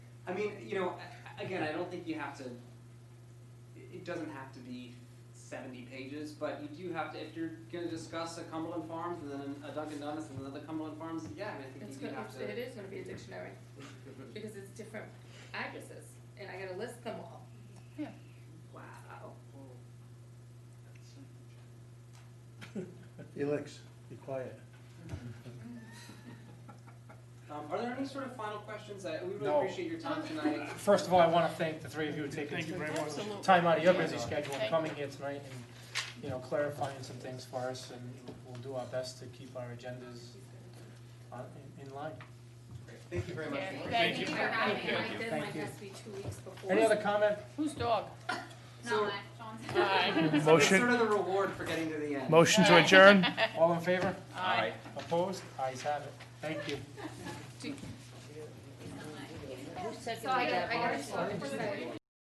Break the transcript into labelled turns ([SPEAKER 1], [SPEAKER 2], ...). [SPEAKER 1] I mean, you know, a- again, I don't think you have to. it- It doesn't have to be seventy pages, but you do have to. If you're going to discuss a Cumberland Farms and then a Dunkin' Donuts and another Cumberland Farms, yeah, I, mean, I think
[SPEAKER 2] It's
[SPEAKER 1] you do
[SPEAKER 2] gonna,
[SPEAKER 1] have
[SPEAKER 2] it
[SPEAKER 1] to.
[SPEAKER 2] is gonna be a dictionary, because it's different addresses, and I gotta list them all.
[SPEAKER 3] Yeah.
[SPEAKER 2] Wow.
[SPEAKER 4] Felix, be quiet.
[SPEAKER 1] Um, are there any sort of final questions? I, we really
[SPEAKER 5] No.
[SPEAKER 1] appreciate your time tonight.
[SPEAKER 5] First of all, I want to thank the three of you for taking
[SPEAKER 6] Thank you very much.
[SPEAKER 5] time out of your
[SPEAKER 6] Thank
[SPEAKER 5] busy
[SPEAKER 6] you.
[SPEAKER 5] schedule and
[SPEAKER 3] Thank
[SPEAKER 5] coming here tonight and, you know, clarifying some things for us, and we'll do our best to keep our agendas on- in- in line.
[SPEAKER 1] Great. Thank you very much.
[SPEAKER 3] Yeah,
[SPEAKER 1] for your-
[SPEAKER 3] Thank
[SPEAKER 2] Thank you
[SPEAKER 3] you.
[SPEAKER 2] for having me,
[SPEAKER 6] Thank
[SPEAKER 2] my
[SPEAKER 5] you.
[SPEAKER 2] deadline
[SPEAKER 5] Thank you.
[SPEAKER 2] has to be two weeks before.
[SPEAKER 5] Any other comment?
[SPEAKER 3] Whose dog?
[SPEAKER 1] So,
[SPEAKER 3] Aye.
[SPEAKER 1] so it's
[SPEAKER 4] Motion-
[SPEAKER 1] sort of the reward for getting to the end.
[SPEAKER 4] Motion to adjourn?
[SPEAKER 5] All in favor?
[SPEAKER 3] Aye.
[SPEAKER 5] Opposed? Ayes have it. Thank you.
[SPEAKER 2] So I gotta, I gotta stop for a second.